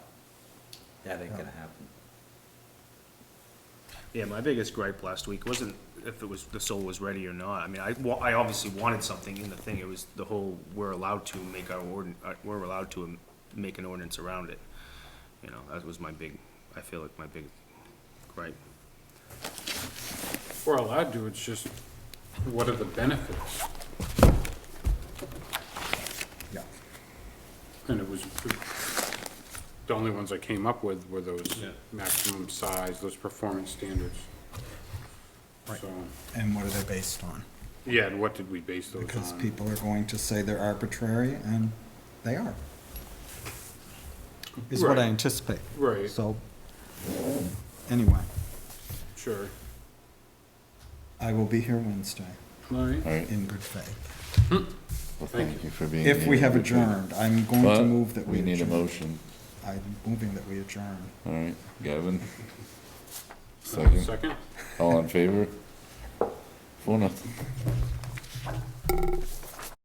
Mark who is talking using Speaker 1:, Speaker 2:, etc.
Speaker 1: That ain't gonna happen.
Speaker 2: Yeah, my biggest gripe last week wasn't if it was, the soul was ready or not. I mean, I, wa- I obviously wanted something in the thing. It was the whole, we're allowed to make our ordin, uh, we're allowed to um, make an ordinance around it. You know, that was my big, I feel like my big gripe.
Speaker 3: We're allowed to, it's just, what are the benefits?
Speaker 1: Yeah.
Speaker 3: And it was, the only ones I came up with were those maximum size, those performance standards. So,
Speaker 4: And what are they based on?
Speaker 3: yeah, and what did we base those on?
Speaker 4: Because people are going to say they're arbitrary, and they are. Is what I
Speaker 3: Right.
Speaker 4: anticipate.
Speaker 3: Right.
Speaker 4: So, anyway,
Speaker 3: Sure.
Speaker 4: I will be here Wednesday
Speaker 3: All right.
Speaker 5: All right,
Speaker 4: in good faith.
Speaker 5: well, thank you for being here.
Speaker 4: If we have adjourned, I'm going to
Speaker 5: But
Speaker 4: move that we
Speaker 5: We need a
Speaker 4: adjourn.
Speaker 5: motion,
Speaker 4: I'm moving that we adjourn.
Speaker 5: all right, Gavin? Second,
Speaker 3: Second?
Speaker 5: all in favor? Four nothing.